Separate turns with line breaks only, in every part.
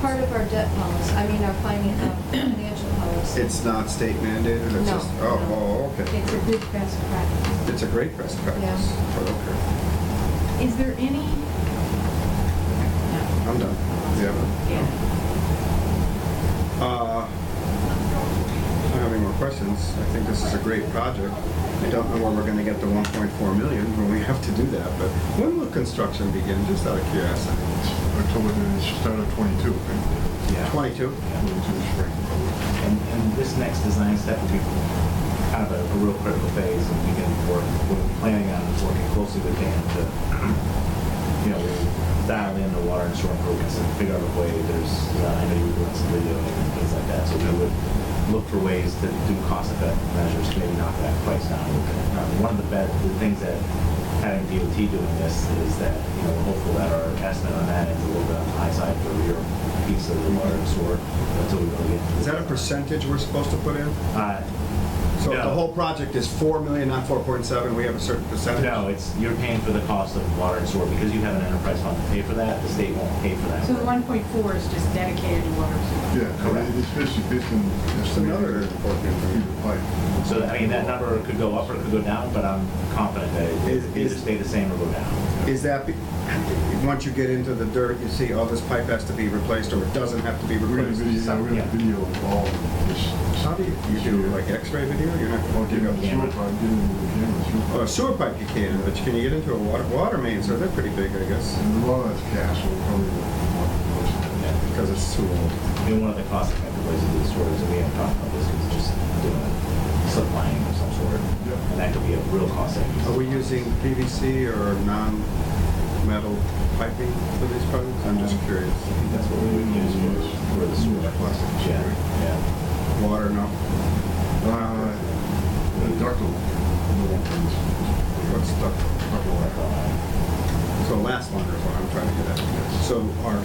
part of our debt policy, I mean, our finan- uh, financial policy.
It's not state mandated,
No,
it's just,
no.
oh, oh, okay.
It's a good best practice.
It's a great best practice.
Yeah.
Okay,
Is there any? No.
I'm done. Yeah.
Yeah.
Uh, I don't have any more questions. I think this is a great project. I don't know where we're gonna get the 1.4 million when we have to do that, but when will construction begin, just out of curiosity?
October, they start at 22, right?
Yeah.
22?
Yeah.
22 is right.
And, and this next design step will be kind of a, a real critical phase, and we can work, we're planning on working closely with Dan to, you know, dial in the water and storm improvements and figure out a way, there's, uh, I know you were doing some video and things like that, so we would look for ways to do cost effective measures, to maybe knock that price down. a little bit. Um, One of the best, the things that having DOT doing this is that, you know, hopeful that our estimate on that is a little bit on the high side for your piece of the water and sewer until we really get. to
Is that a
the-
percentage we're supposed to put in?
uh,
So if the
No.
whole project is 4 million, not 4.7, we have a certain percentage?
No, it's, you're paying for the cost of water and sewer, because you have an enterprise fund to pay for that, the state won't pay for that.
So the one point four is just dedicated to water and sewer.
Yeah, I mean, it's basically based on
It's another
estimated
important
feet
information.
of pipe.
So, I mean, that number could go up or it could go down, but I'm confident that it
Is-
it'll either
is-
stay the same or go down.
Is that, be- once you get into the dirt, you see, oh, this pipe has to be replaced, or it doesn't have to be
We're gonna
replaced?
video, we're
Yeah.
gonna video of all of this.
How do you, you do like x-ray video? You're not
I'll
going to
give
give
them the
up.
sewer pipe, give them the camera, sewer
Well, a
pipe.
sewer pipe you can, but can you get into a water, water main, so they're pretty big, I guess,
And a lot of that's gas, so we'll probably want
Yeah.
because it's too old.
I mean, one of the cost effective ways to do this sort is, and we haven't talked about this, is just doing a slip lining of some sort.
Yeah.
And that could be a real cost savings.
Are we using PVC or non-metal piping for these projects? I'm just curious.
I think that's what we would use for, for the sewer.
Plastic sewer.
Yeah, yeah.
Water, no.
Uh, ductile.
What's duct?
Uh,
So last one is what I'm trying to get at. So our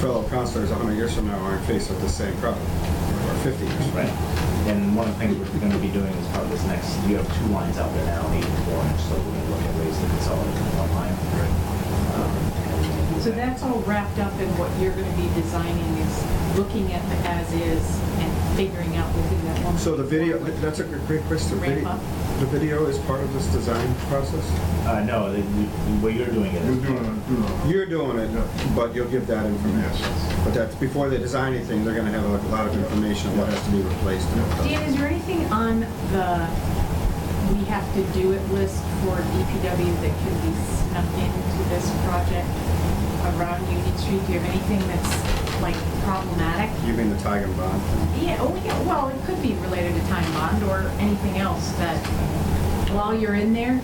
fellow counselors, 100 years from now, aren't faced with the same problem, or 50 years. from now.
Right. And one of the things we're gonna be doing is part of this next, you have two lines out there now, eight and four inch, so we're gonna look at ways to consolidate into one line. Right.
So that's all wrapped up in what you're gonna be designing is looking at the as-is and figuring out within that one.
So the video, that's a gr- great question.
Ramp
Video-
up.
The video is part of this design process?
Uh, no, the- you- what you're doing
We're
is.
Mm-hmm.
doing, a- doing. a-
You're doing it, but you'll give that information.
Yes.
But that's, before they design anything, they're gonna have a lot of information on what has to be replaced. and what
Dan,
doesn't.
is there anything on the, we have to do it list for DPW that can be snuck into this project around Union Street? Do you have anything that's like problematic?
You mean the Tigan bond thing?
Yeah, oh, yeah, well, it could be related to time bond or anything else that while you're in there,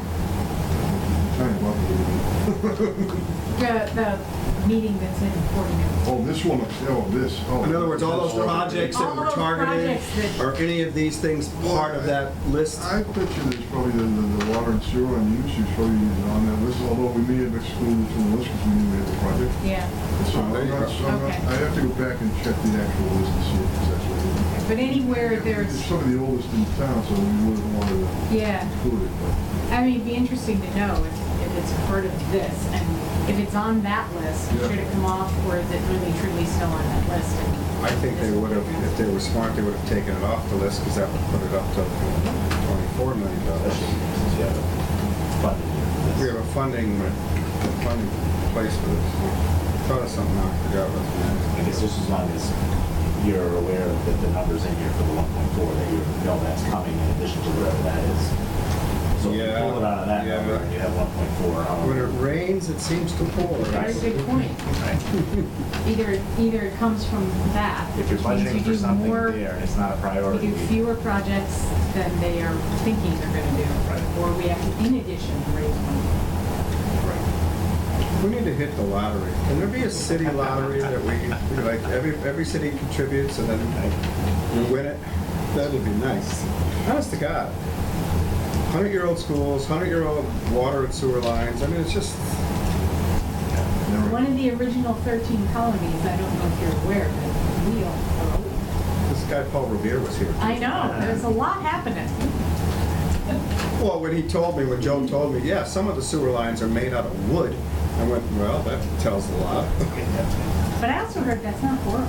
Trying to love it.
the, the meeting that's in Fort Mill.
Oh, this one, oh, this, oh.
In other words, all those projects that
All
were
those
targeted,
projects that-
are any of these things part of that list?
I bet you there's probably the, the, the water and sewer and use is probably on that list, although we may have excluded it from the list because we knew we had the project.
Yeah,
So I'm
There you go.
not, I'm not,
Okay.
I have to go back and check the actual list and see if it's actually.
but anywhere
It's
there's,
some of the oldest in town, so we wouldn't want to
yeah.
include it, but.
I mean, it'd be interesting to know if, if it's part of this, and if it's on that list,
Yeah.
should it come off, or is it really truly still on that list?
I think they would have, if they were smart, they would have taken it off the list, because that would put it up to twenty-four million dollars.
Especially since you have a funded
We have
year for this.
a funding, a funding place for this. Thought of something, I forgot what it
I guess just as long as you're aware that the numbers in here for the one point four, that you know that's coming in addition to whatever that is. So if you
Yeah,
pull it out of that
yeah,
number,
but-
and you have one point four.
was. When it rains, it seems to pour.
That's a good point.
Right.
Either, either it comes from that.
If you're
which means
budgeting
you
for
do
something
more-
there and it's not a
We
priority.
do fewer projects than they are thinking they're gonna do,
Right.
or we have to, in addition, raise money.
We need to hit the lottery. Can there be a city lottery that we, like, every, every city contributes and then we win it? That would be nice. Honest to God. Hundred-year-old schools, hundred-year-old water and sewer lines, I mean, it's just,
never-
One of the original thirteen colonies, I don't know if you're aware, but we all,
this guy Paul Revere was here.
I know, there's a lot happening.
Well, when he told me, when Joe told me, yeah, some of the sewer lines are made out of wood, I went, well, that tells a lot.
But I also heard that's not horrible.